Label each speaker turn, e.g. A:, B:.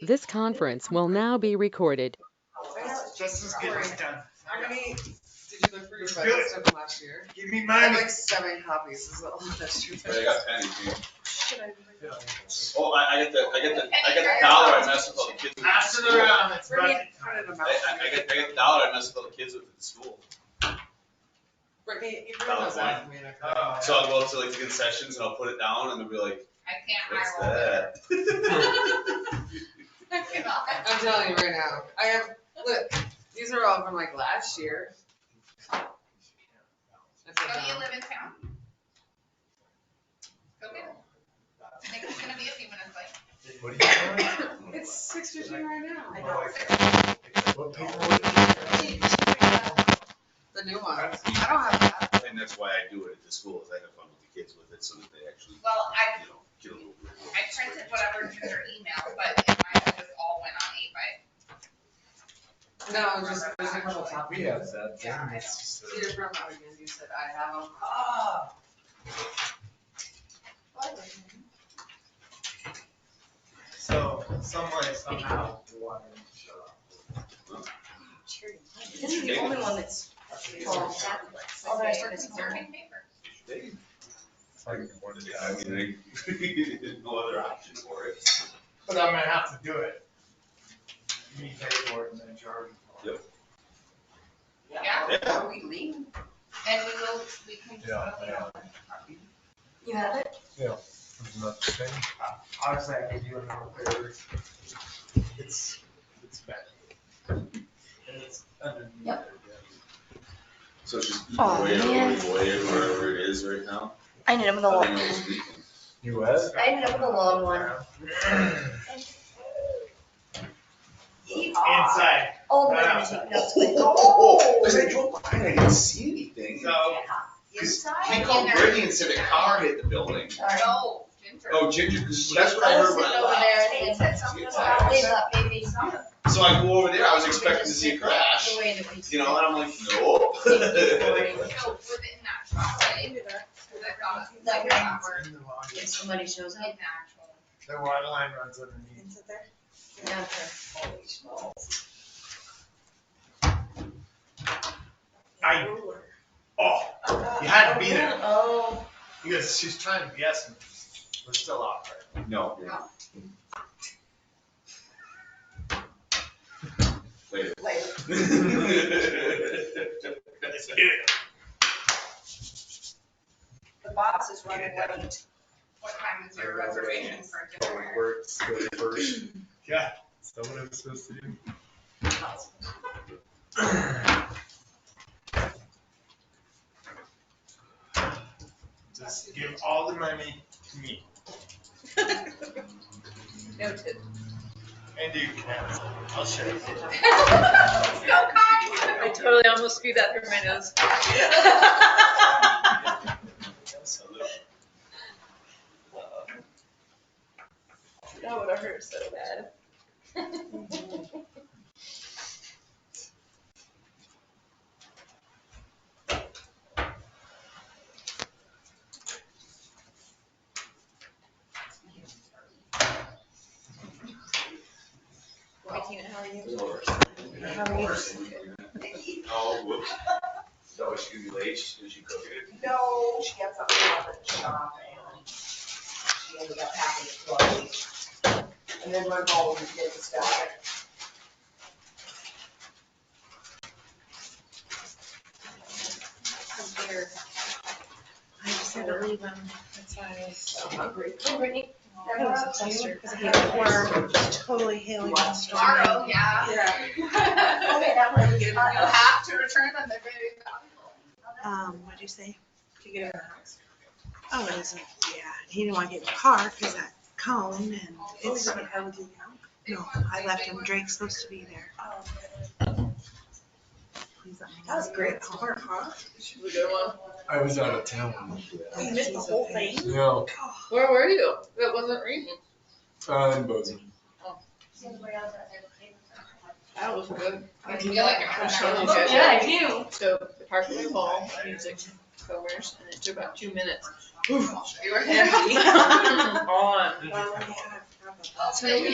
A: This conference will now be recorded.
B: That's just as good as done.
C: How many, did you look for your budget stuff from last year?
B: Give me
C: I
B: mine.
C: had like seven copies, is all that's true.
D: But I got pennies. man.
B: Pass
D: Oh, I, I get the, I get the, I get the dollar I mess with all the kids. with at
B: it
D: school. I,
B: around. It's
C: Bring
B: about-
C: it, printed them out.
D: I, I get, I get the dollar I mess with all the kids with at school.
C: Brittany, you bring those out for me and I can-
B: Oh.
D: So I'll go up to like the concessions and I'll put it down and they'll be like,
E: I can't
D: what's
E: hire all that.
D: that?
E: I cannot.
C: I'm telling you right now, I have, look, these are all from like last year. I feel
E: Don't you
C: dumb.
E: live in town? Go get him. I think it's gonna be a few minutes late.
F: What do you want?
C: It's six fifteen right now.
B: I know.
F: What paper
C: The new ones, I don't have that.
D: And that's why I do it at the school, is I have fun with the kids with it so that they actually,
E: Well, I,
D: you know, get a little.
E: I printed whatever through their email, but in my head, this all went on eight by.
C: No, just, there's a couple
F: We
C: copies.
F: have that thing.
E: Yeah, I
F: It's just a-
C: Peter from Oregon, you said I have them.
E: Oh.
B: So, some way, somehow, water.
G: This is the only one that's all tablets.
E: Oh, they're conserving paper.
D: They-
F: like, what is
D: I
F: that?
D: mean, they- no other option for it.
B: But I'm gonna have to do it. Me pay for it and then charge.
D: Yep.
E: Yeah.
G: Are we leaving?
E: And we will, we can.
F: Yeah, yeah.
G: You have it?
F: Isn't that the thing?
B: Honestly, I could do another pair. It's, it's bad. And it's underneath.
G: Yep.
D: So it's just eat
G: Aw,
D: away, away,
G: man.
D: away, wherever it is right now.
G: I ended up with a
D: I
G: long
D: think it
G: one.
D: was weekend.
F: You what?
G: I ended up with a long one.
B: Inside,
G: Oh, but I'm taking notes with.
D: Oh, because I drove by and I didn't see anything.
B: so,
D: He
E: Inside.
D: called
E: in there.
D: Brittany and said a car hit the building.
G: Sorry.
E: No, Ginger.
D: Oh, Ginger, because that's what I heard when I
G: Over
D: left.
G: there, and
E: said something
D: about-
G: they left, maybe.
D: So I go over there, I was expecting to see a crash,
G: The way that we-
D: you know, and I'm like, no.
E: So within that chocolate, because I thought it was like
G: Like,
E: awkward,
B: in the lawn,
G: If somebody shows up.
E: like natural.
B: the water line runs underneath.
G: Yeah.
B: I, oh, you had to be there.
G: Oh.
B: Because she's trying to BS me. We're still off, right?
D: No. Later.
G: The box is
B: running
G: late.
E: What time is your reservation for dinner?
F: Works the first.
B: Yeah.
F: Is that what I'm supposed to do?
B: Just give all the money to me.
G: Noted.
B: And you can have it. I'll share it.
E: So kind.
G: I totally almost screwed that through my nose. That would have hurt so bad. Hi Tina, how are you? How are you?
D: Oh, whoops. So she gonna be late, Is she cooking it?
H: No, she had something about the job and she ended up having to close. And then my mom was getting stuff.
G: I just had to leave them, that's why I was.
H: I'm hungry.
G: Oh, Brittany, that was a cluster, because I hate
H: Yeah.
G: worm, totally hailing on storm.
E: Tomorrow, yeah.
C: Yeah.
E: You
H: Okay, that one.
E: uh, have to return them, they're very valuable.
I: um, what'd you say? To get out of the house? Oh, it was, yeah, he didn't want to get in the car because that cone and it was, no, I left him, Drake's supposed to be there. Please let me know.
H: That was great
I: He's
H: huh?
F: I was out of town.
H: You missed the whole thing?
I: Oh,
F: No,
C: Where were you? It wasn't raining. Oh.
F: uh, in Bozeman.
C: That was good.
E: I Oh, feel like I'm
C: I'm
E: sure
C: showing you
E: you
C: guys.
G: Yeah, I do.
C: So the Parkway Mall, music, covers, and it took about two minutes.
E: You were
C: Empty. On.
I: Well, yeah, probably.
E: So you